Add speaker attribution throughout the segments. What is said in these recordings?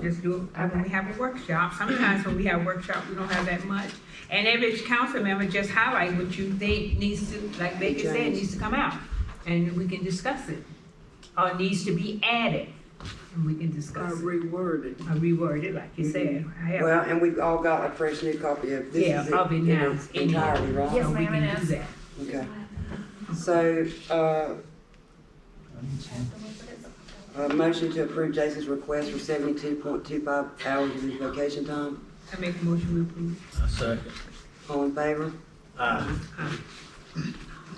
Speaker 1: just do, it when we have a workshop, sometimes when we have workshop, we don't have that much. And every council member just highlight what you think needs to, like Baker said, needs to come out, and we can discuss it. Or needs to be added, and we can discuss it,
Speaker 2: reworded.
Speaker 1: or reword it like you said. I have-
Speaker 3: Well, and we've all got a fresh new copy of this.
Speaker 1: Yeah,
Speaker 3: is it,
Speaker 1: probably
Speaker 3: you
Speaker 1: now
Speaker 3: know,
Speaker 1: it's in here.
Speaker 3: Entirely, right?
Speaker 4: Yes,
Speaker 1: So we
Speaker 4: ma'am, it
Speaker 1: can do
Speaker 4: is.
Speaker 1: that.
Speaker 3: Okay. So, uh, a motion to approve Jason's request for seventy-two point two-five hours of his vacation time.
Speaker 1: I make a motion we approve.
Speaker 5: I second.
Speaker 3: All in favor?
Speaker 5: Aye.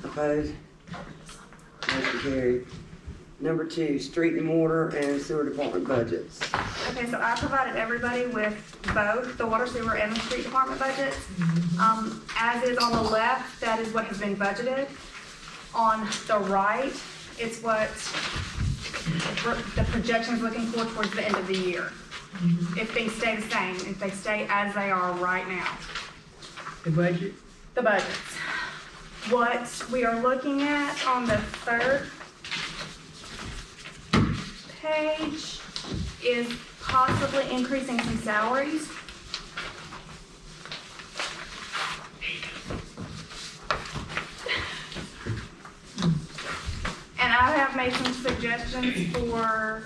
Speaker 3: Opposed? Motion carried. Number two, street and mortar and sewer department budgets.
Speaker 4: Okay, so I provided everybody with both the water sewer and the street department budgets. Um, as is on the left, that is what has been budgeted. On the right, it's what the projection's looking for towards the end of the year. If things stay the same, if they stay as they are right now.
Speaker 1: The budget?
Speaker 4: the budgets. What we are looking at on the third page is possibly increasing some salaries. And I have made some suggestions for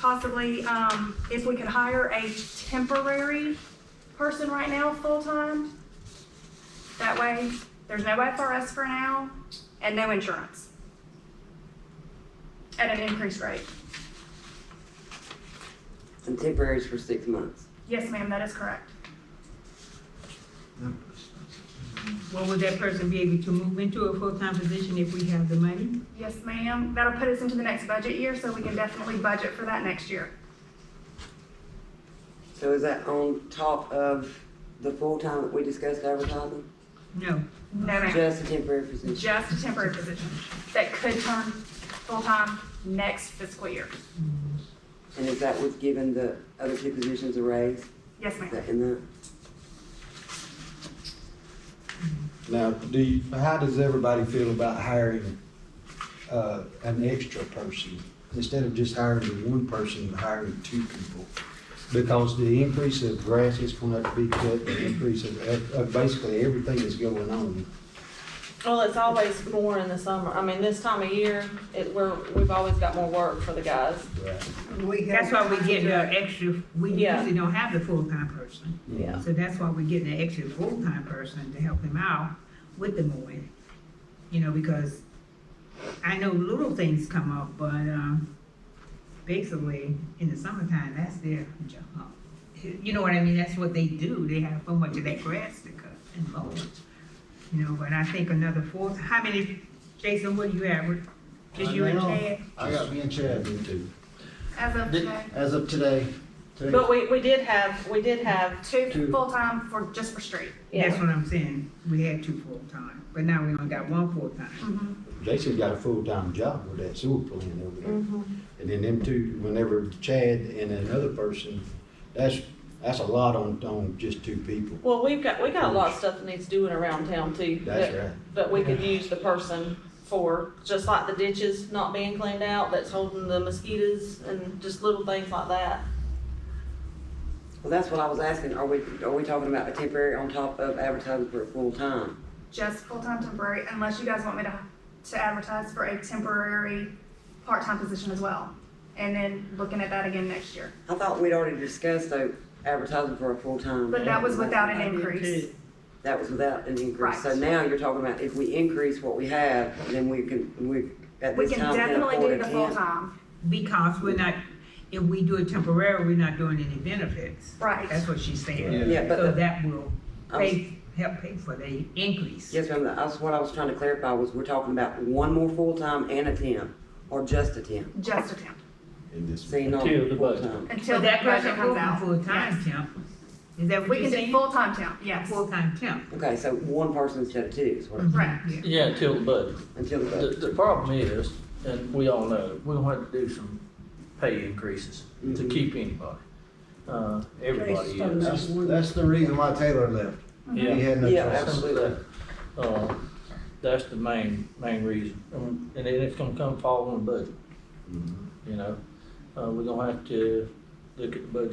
Speaker 4: possibly, um, if we could hire a temporary person right now, full-time. That way, there's no FRS for now and no insurance. At an increased rate.
Speaker 3: And temporaries for six months.
Speaker 4: Yes, ma'am, that is correct.
Speaker 1: Well, would that person be able to move into a full-time position if we have the money?
Speaker 4: Yes, ma'am. That'll put us into the next budget year, so we can definitely budget for that next year.
Speaker 3: So is that on top of the full-time that we discussed advertising?
Speaker 1: No.
Speaker 4: No, ma'am.
Speaker 3: Just a temporary position?
Speaker 4: Just a temporary position that could turn full-time next fiscal year.
Speaker 3: And is that what's given the other two positions a raise?
Speaker 4: Yes,
Speaker 3: Is
Speaker 4: ma'am.
Speaker 3: that in the,
Speaker 6: Now, do you, how does everybody feel about hiring, uh, an extra person? Instead of just hiring the one person, hiring two people? Because the increase of grass is gonna have to be cut, the increase of, of- of basically everything that's going on.
Speaker 7: Well, it's always more in the summer. I mean, this time of year, it, we're, we've always got more work for the guys.
Speaker 6: Right.
Speaker 1: That's why we get the extra, we
Speaker 7: Yeah.
Speaker 1: usually don't have the full-time person.
Speaker 7: Yeah.
Speaker 1: So that's why we're getting an extra full-time person to help him out with the mowing. You know, because I know little things come up, but, um, basically, in the summertime, that's their job. You know what I mean? That's what they do. They have so much of that grass to cut and mow. You know, but I think another four, how many, Jason, what do you have? Just you and
Speaker 6: Right now,
Speaker 1: Chad?
Speaker 6: I got me and Chad, me too.
Speaker 4: As of today,
Speaker 6: As of today, today.
Speaker 7: But we, we did have, we did have,
Speaker 4: two
Speaker 6: Two.
Speaker 4: full-time for, just for street.
Speaker 1: That's
Speaker 7: yeah.
Speaker 1: what I'm saying. We had two full-time, but now we only got one full-time.
Speaker 4: Mhm.
Speaker 6: Jason's got a full-time job with that sewer plant over there.
Speaker 7: Mhm.
Speaker 6: And then them two, whenever Chad and another person, that's, that's a lot on, on just two people.
Speaker 7: Well, we've got, we got a lot of stuff that needs doing around town too.
Speaker 6: That's
Speaker 7: that-
Speaker 6: right.
Speaker 7: That we could use the person for, just like the ditches not being cleaned out, that's holding the mosquitoes and just little things like that.
Speaker 3: well, that's what I was asking, are we, are we talking about a temporary on top of advertising for a full-time?
Speaker 4: Just full-time temporary, unless you guys want me to, to advertise for a temporary part-time position as well. And then looking at that again next year.
Speaker 3: I thought we'd already discussed though, advertising for a full-time.
Speaker 4: But that was without an increase.
Speaker 3: That was without an increase. So
Speaker 4: Right.
Speaker 3: now you're talking about if we increase what we have, then we can, we, at
Speaker 4: We
Speaker 3: this
Speaker 4: can
Speaker 3: time, can
Speaker 4: definitely
Speaker 3: afford
Speaker 4: do
Speaker 3: a
Speaker 4: the
Speaker 3: tent.
Speaker 4: full-time.
Speaker 1: Because we're not, if we do it temporary, we're not doing any benefits.
Speaker 4: Right.
Speaker 1: That's what she's saying.
Speaker 3: Yeah, but
Speaker 1: So
Speaker 3: the-
Speaker 1: that will
Speaker 3: I was-
Speaker 1: pay, help pay for the increase.
Speaker 3: Yes, ma'am, that's what I was trying to clarify was we're talking about one more full-time and a temp, or just a temp.
Speaker 4: Just a temp.
Speaker 6: In this.
Speaker 3: See, not
Speaker 5: Until the budget.
Speaker 3: full-time.
Speaker 4: Until
Speaker 1: So
Speaker 4: that
Speaker 1: that person
Speaker 4: budget comes
Speaker 1: full-time,
Speaker 4: out.
Speaker 1: full-time
Speaker 4: Yes.
Speaker 1: temp. Is that what
Speaker 4: We
Speaker 1: you're
Speaker 4: can do
Speaker 1: saying?
Speaker 4: full-time temp, yes.
Speaker 1: Full-time temp.
Speaker 3: Okay, so one person instead of two is what, I'm-
Speaker 4: Right.
Speaker 1: Yeah.
Speaker 5: Yeah, till the budget.
Speaker 3: until the
Speaker 5: The,
Speaker 3: budget.
Speaker 5: the problem is, and we all know, we're gonna have to do some pay increases to
Speaker 6: Mm-hmm.
Speaker 3: Mhm.
Speaker 5: keep anybody. Uh, everybody is.
Speaker 6: That's, that's the reason why Taylor left. He
Speaker 5: Yeah.
Speaker 6: had no
Speaker 3: Yeah,
Speaker 6: choice.
Speaker 3: absolutely.
Speaker 5: Uh, that's the main, main reason. Um, And then it's gonna come fall on the budget,
Speaker 6: Mhm.
Speaker 5: you know? Uh, we're gonna have to look at the budget